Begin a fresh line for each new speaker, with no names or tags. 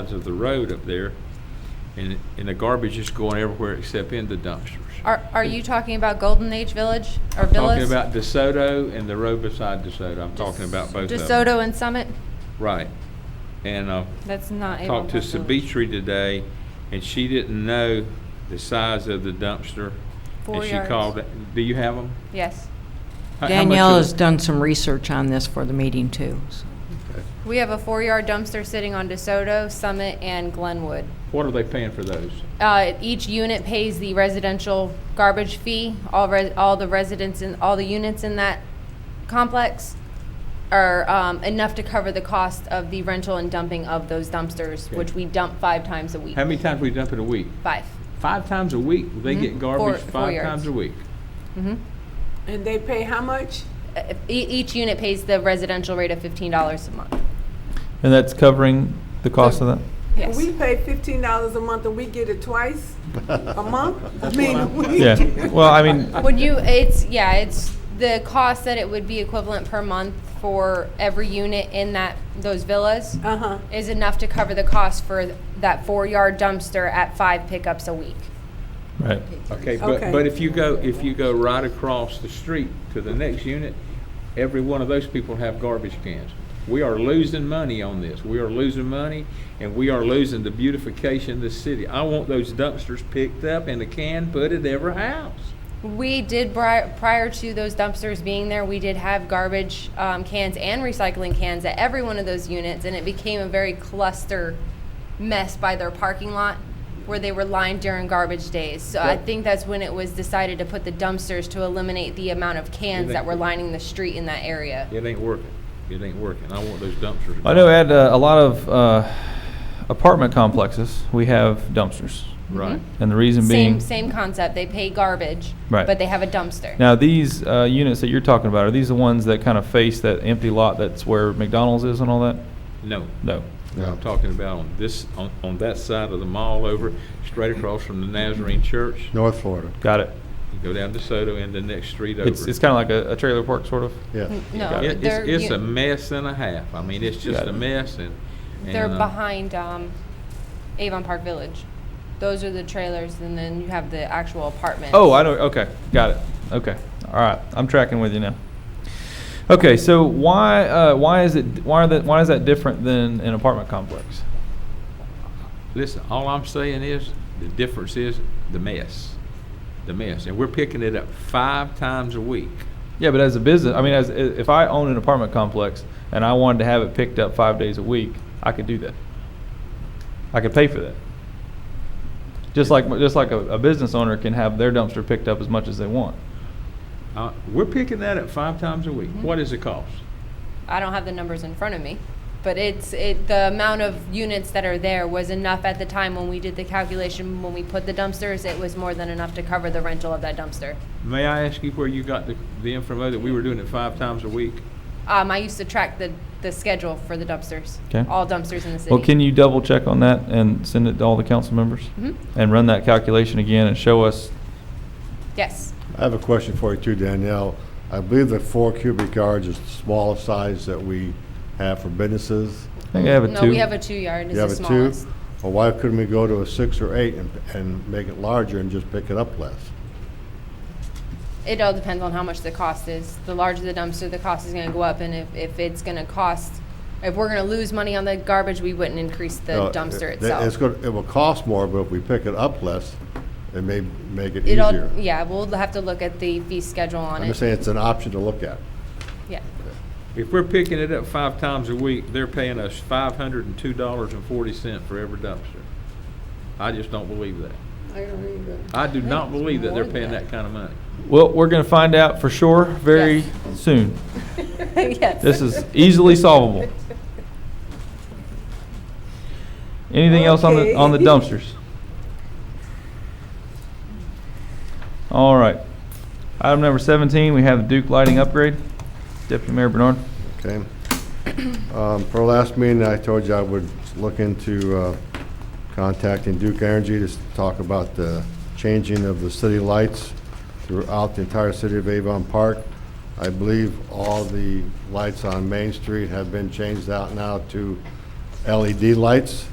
sides of the road up there, and, and the garbage is going everywhere except in the dumpsters.
Are, are you talking about Golden Age Village or
I'm
Villas?
Talking about DeSoto and the road beside DeSoto, I'm talking about both of them.
DeSoto and Summit?
Right. And, uh,
That's not Avon
talked to
Park Village.
Sabitri today, and she didn't know the size of the dumpster.
Four
And she
yards.
called, do you have them?
Yes.
Danielle has done some research on this for the meeting, too. so.
We have a four-yard dumpster sitting on DeSoto, Summit, and Glenwood.
What are they paying for those?
Uh, Each unit pays the residential garbage fee. All, res- all the residents in, all the units in that complex are um, enough to cover the cost of the rental and dumping of those dumpsters,
Okay.
which we dump five times a week.
How many times we dump in a week?
Five.
Five times a week, they get
Mm-hmm. Four-
garbage
four
five
yards.
times a week.
And they pay how much?
Uh, e- Each unit pays the residential rate of $15 a month.
And that's covering the cost of that?
Yes.
We pay fifteen dollars a month and we get it twice a month? I mean, a week?
Yeah, well, I mean,
Would you, it's, yeah, it's the cost that it would be equivalent per month for every unit in that, those villas
Uh-huh.
is enough to cover the cost for that four-yard dumpster at five pickups a week.
right,
Okay, but,
Okay.
but if you go, if you go right across the street to the next unit, every one of those people have garbage cans. We are losing money on this. We are losing money and we are losing the beautification of this city. I want those dumpsters picked up and a can put at every house.
We did, bri- prior to those dumpsters being there, we did have garbage um, cans and recycling cans at every one of those units, and it became a very cluster mess by their parking lot where they were lined during garbage days. So I
Right.
think that's when it was decided to put the dumpsters to eliminate the amount of cans that were lining the street in that area.
It ain't working. It ain't working. I want those dumpsters.
I know at uh, a lot of uh, apartment complexes, we have dumpsters.
Right.
And the reason
Same,
being,
same concept. They pay garbage,
Right.
but they have a dumpster.
now, these uh, units that you're talking about, are these the ones that kind of face that empty lot that's where McDonald's is and all that?
No.
No.
I'm talking about on this, on, on that side of the mall over, straight across from the Nazarene Church.
North Florida,
Got it.
You go down DeSoto and the next street over.
It's, it's kind of like a a trailer park, sort of?
yes.
No,
It-
they're,
It's, it's a
you-
mess and a half. I mean, it's just
Got
a
it.
mess and.
they're
and, uh,
behind um, Avon Park Village. Those are the trailers, and then you have the actual apartments.
Oh, I know. Okay, got it. Okay, all right. I'm tracking with you now. Okay, so why uh, why is it why are that why is that different than an apartment complex?
Listen, all I'm saying is, the difference is the mess, the mess. And we're picking it up five times a week.
Yeah, but as a business, I mean, as i- if I own an apartment complex and I wanted to have it picked up five days a week, I could do that. I could pay for that. Just like just like a, a business owner can have their dumpster picked up as much as they want.
Uh, we're picking that up five times a week.
Mm-hmm.
What is the cost?
I don't have the numbers in front of me, but it's, it, the amount of units that are there was enough at the time when we did the calculation, when we put the dumpsters, it was more than enough to cover the rental of that dumpster.
May I ask you where you got the, the info that we were doing it five times a week?
Um, I used to track the, the schedule for the dumpsters.
'Kay.
All dumpsters in the city.
Well, can you double check on that and send it to all the council members
Mhm.
and run that calculation again and show us
Yes.
I have a question for you too, Danielle. I believe that four cubic yards is the smallest size that we have for businesses.
I think I have a two.
No, we have a two-yard, it's
You
the
have a two?
smallest.
Well, why couldn't we go to a six or eight and, and make it larger and just pick it up less?
It all depends on how much the cost is. The larger the dumpster, the cost is gonna go up, and if, if it's gonna cost, if we're gonna lose money on the garbage, we wouldn't increase
No,
the dumpster
it- It's
itself.
gonna, it will cost more, but if we pick it up less, it may make it
It all,
easier.
yeah, we'll have to look at the fee schedule on
I'm just
it.
saying it's an option to look at.
Yeah.
If we're picking it up five times a week, they're paying us five hundred and two dollars and forty cent for every dumpster. I just don't believe that.
I don't either.
I do not
it's
believe that
more
they're paying
than that.
that kind of money.
Well, we're going to find out for sure very soon.
Yes.
This is easily solvable. Anything else on the on the
Okay.
dumpsters? All right. Item number 17, we have the Duke lighting upgrade. Deputy Mayor Bernard.
Okay. Um, For our last meeting, I told you I would look into uh, contacting Duke Energy to s- talk about the changing of the city lights throughout the entire city of Avon Park. I believe all the E lights on Main Street have been changed out now to LED lights.